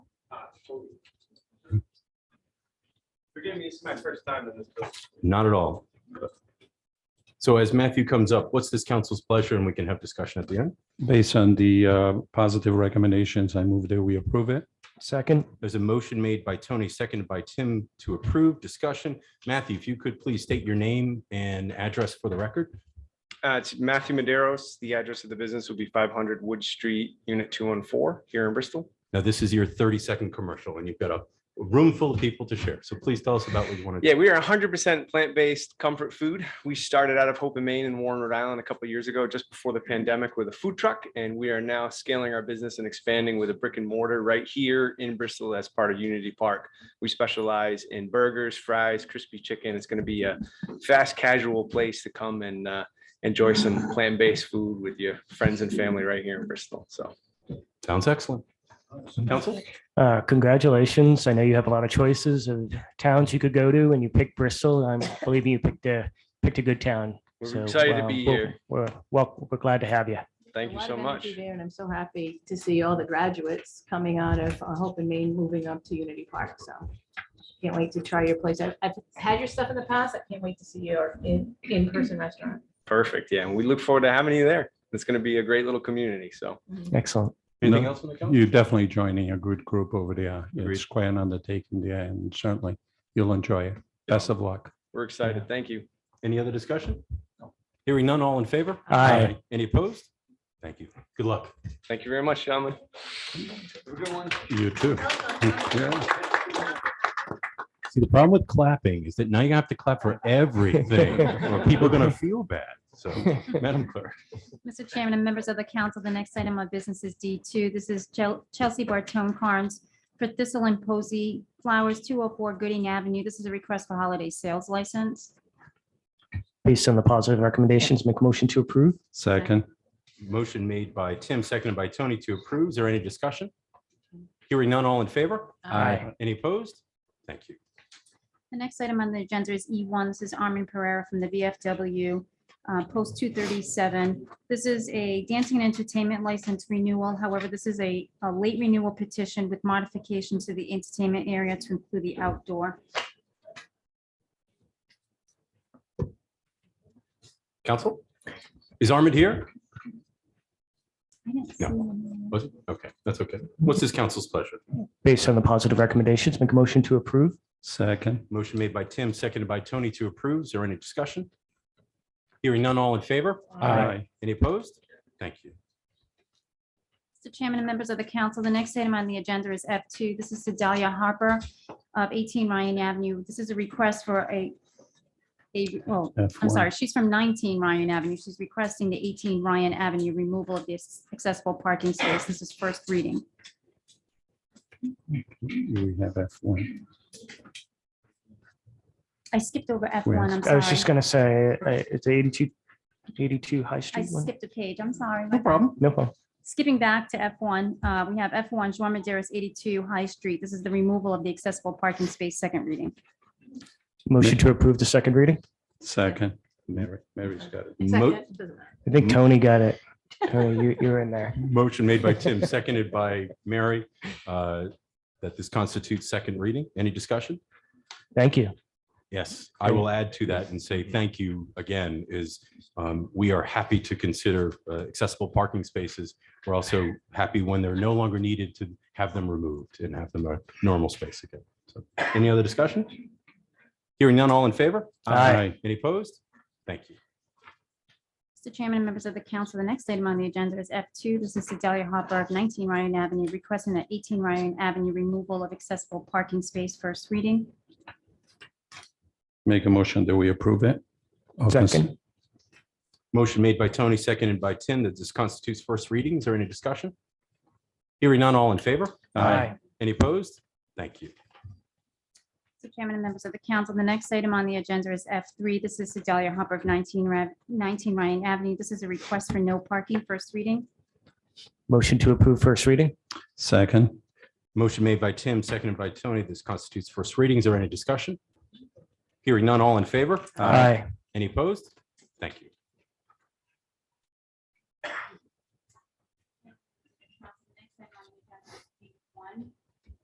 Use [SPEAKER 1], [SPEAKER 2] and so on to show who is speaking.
[SPEAKER 1] Forgive me, it's my first time in this.
[SPEAKER 2] Not at all. So as Matthew comes up, what's this council's pleasure? And we can have discussion at the end.
[SPEAKER 3] Based on the uh, positive recommendations, I move that we approve it.
[SPEAKER 4] Second,
[SPEAKER 2] There's a motion made by Tony, seconded by Tim to approve discussion. Matthew, if you could please state your name and address for the record.
[SPEAKER 1] Uh, it's Matthew Maderos. The address of the business will be five hundred Wood Street, unit two one four, here in Bristol.
[SPEAKER 2] Now, this is your 30-second commercial and you've got a room full of people to share. So please tell us about what you want to do.
[SPEAKER 1] Yeah, we are hundred percent plant-based comfort food. We started out of Hope in Maine and Warren, Rhode Island a couple years ago, just before the pandemic with a food truck. And we are now scaling our business and expanding with a brick and mortar right here in Bristol as part of Unity Park. We specialize in burgers, fries, crispy chicken. It's gonna be a fast casual place to come and uh, enjoy some plant-based food with your friends and family right here in Bristol. So
[SPEAKER 2] Sounds excellent. Council?
[SPEAKER 4] uh, congratulations. I know you have a lot of choices of towns you could go to and you picked Bristol. I'm believing you picked a, picked a good town.
[SPEAKER 1] We're
[SPEAKER 4] So,
[SPEAKER 1] excited to
[SPEAKER 4] uh,
[SPEAKER 1] be
[SPEAKER 4] we'll-
[SPEAKER 1] here.
[SPEAKER 4] We're, well, we're glad to have you.
[SPEAKER 1] thank you
[SPEAKER 5] A lot
[SPEAKER 1] so
[SPEAKER 5] of
[SPEAKER 1] much.
[SPEAKER 5] energy there, And I'm so happy to see all the graduates coming out of uh, Hope and Maine, moving up to Unity Park. So can't wait to try your place. I've I've had your stuff in the past. I can't wait to see your in, in-person restaurant.
[SPEAKER 1] Perfect. Yeah, and we look forward to having you there. It's gonna be a great little community. So
[SPEAKER 4] Excellent.
[SPEAKER 2] Anything
[SPEAKER 3] No.
[SPEAKER 2] else on the council?
[SPEAKER 3] You're definitely joining a good group over there.
[SPEAKER 2] Agreed.
[SPEAKER 3] It's quite an undertaking there and certainly you'll enjoy it. Best of luck.
[SPEAKER 1] we're excited. Thank you.
[SPEAKER 2] Any other discussion? Hearing none, all in favor?
[SPEAKER 4] Aye.
[SPEAKER 2] Any opposed? Thank you. Good luck.
[SPEAKER 1] Thank you very much, gentlemen.
[SPEAKER 3] You too. Yeah.
[SPEAKER 2] See, the problem with clapping is that now you have to clap for everything. or People are going to feel bad. So, Madam Clerk.
[SPEAKER 6] Mr. Chairman and members of the council, the next item of business is D2. This is Chel- Chelsea Bartone Carnes for Thistle and Posey Flowers, 204 Gooding Avenue. This is a request for holiday sales license.
[SPEAKER 4] Based on the positive recommendations, make a motion to approve.
[SPEAKER 3] Second,
[SPEAKER 2] Motion made by Tim, seconded by Tony to approve. Is there any discussion? Hearing none, all in favor?
[SPEAKER 4] Aye.
[SPEAKER 2] Any opposed? Thank you.
[SPEAKER 6] The next item on the agenda is E1. This is Armin Pereira from the VFW, uh, Post 237. This is a dancing and entertainment license renewal. However, this is a a late renewal petition with modification to the entertainment area to include the outdoor.
[SPEAKER 2] Council? Is Armand here?
[SPEAKER 6] I didn't
[SPEAKER 2] No.
[SPEAKER 6] see him.
[SPEAKER 2] Was it? Okay, that's okay. What's this council's pleasure?
[SPEAKER 4] Based on the positive recommendations, make a motion to approve.
[SPEAKER 3] second,
[SPEAKER 2] Motion made by Tim, seconded by Tony to approve. Is there any discussion? Hearing none, all in favor?
[SPEAKER 3] aye,
[SPEAKER 2] Any opposed? Thank you.
[SPEAKER 6] Mr. Chairman and members of the council, the next item on the agenda is F2. This is Sedalia Harper of 18 Ryan Avenue. This is a request for a, a, oh, I'm
[SPEAKER 3] F1.
[SPEAKER 6] sorry, she's from 19 Ryan Avenue. She's requesting the 18 Ryan Avenue removal of this accessible parking space. This is first reading.
[SPEAKER 3] We have F1.
[SPEAKER 6] I skipped over
[SPEAKER 3] Where
[SPEAKER 6] F1,
[SPEAKER 3] is-
[SPEAKER 6] I'm
[SPEAKER 4] I was just
[SPEAKER 6] sorry.
[SPEAKER 4] gonna say, uh, it's 82 82 High
[SPEAKER 6] I
[SPEAKER 4] Street. one?
[SPEAKER 6] skipped a page, I'm sorry.
[SPEAKER 2] No problem.
[SPEAKER 4] No problem.
[SPEAKER 6] Skipping back to F1, uh, we have F1 Joan Maderas 82 High Street. This is the removal of the accessible parking space, second reading.
[SPEAKER 4] Motion to approve the second reading.
[SPEAKER 3] Second. Mary, Mary's got it.
[SPEAKER 2] Mo-
[SPEAKER 5] Second, doesn't matter.
[SPEAKER 4] I think
[SPEAKER 1] Mm-hmm.
[SPEAKER 4] Tony got it. Tony, you, you're in there.
[SPEAKER 2] Motion made by Tim, seconded by Mary, uh, that this constitutes second reading. Any discussion?
[SPEAKER 4] Thank you.
[SPEAKER 2] Yes, I will add to that and say thank you again is um, we are happy to consider uh, accessible parking spaces. We're also happy when they're no longer needed to have them removed and have them a normal space again. So any other discussion? Hearing none, all in favor?
[SPEAKER 4] Aye.
[SPEAKER 2] Any opposed? Thank you.
[SPEAKER 6] Mr. Chairman and members of the council, the next item on the agenda is F2. This is Sedalia Hopper of 19 Ryan Avenue requesting that 18 Ryan Avenue removal of accessible parking space first reading.
[SPEAKER 3] Make a motion that we approve it. Of this-
[SPEAKER 4] Second.
[SPEAKER 2] Motion made by Tony, seconded by Tim, that this constitutes first readings or any discussion? Hearing none, all in favor?
[SPEAKER 4] Aye.
[SPEAKER 2] Any opposed? Thank you.
[SPEAKER 6] Mr. Chairman and members of the council, the next item on the agenda is F3. This is Sedalia Hopper of 19 Ra- 19 Ryan Avenue. This is a request for no parking first reading.
[SPEAKER 4] Motion to approve first reading.
[SPEAKER 3] Second,
[SPEAKER 2] Motion made by Tim, seconded by Tony, this constitutes first readings or any discussion? Hearing none, all in favor? Any opposed? Thank you.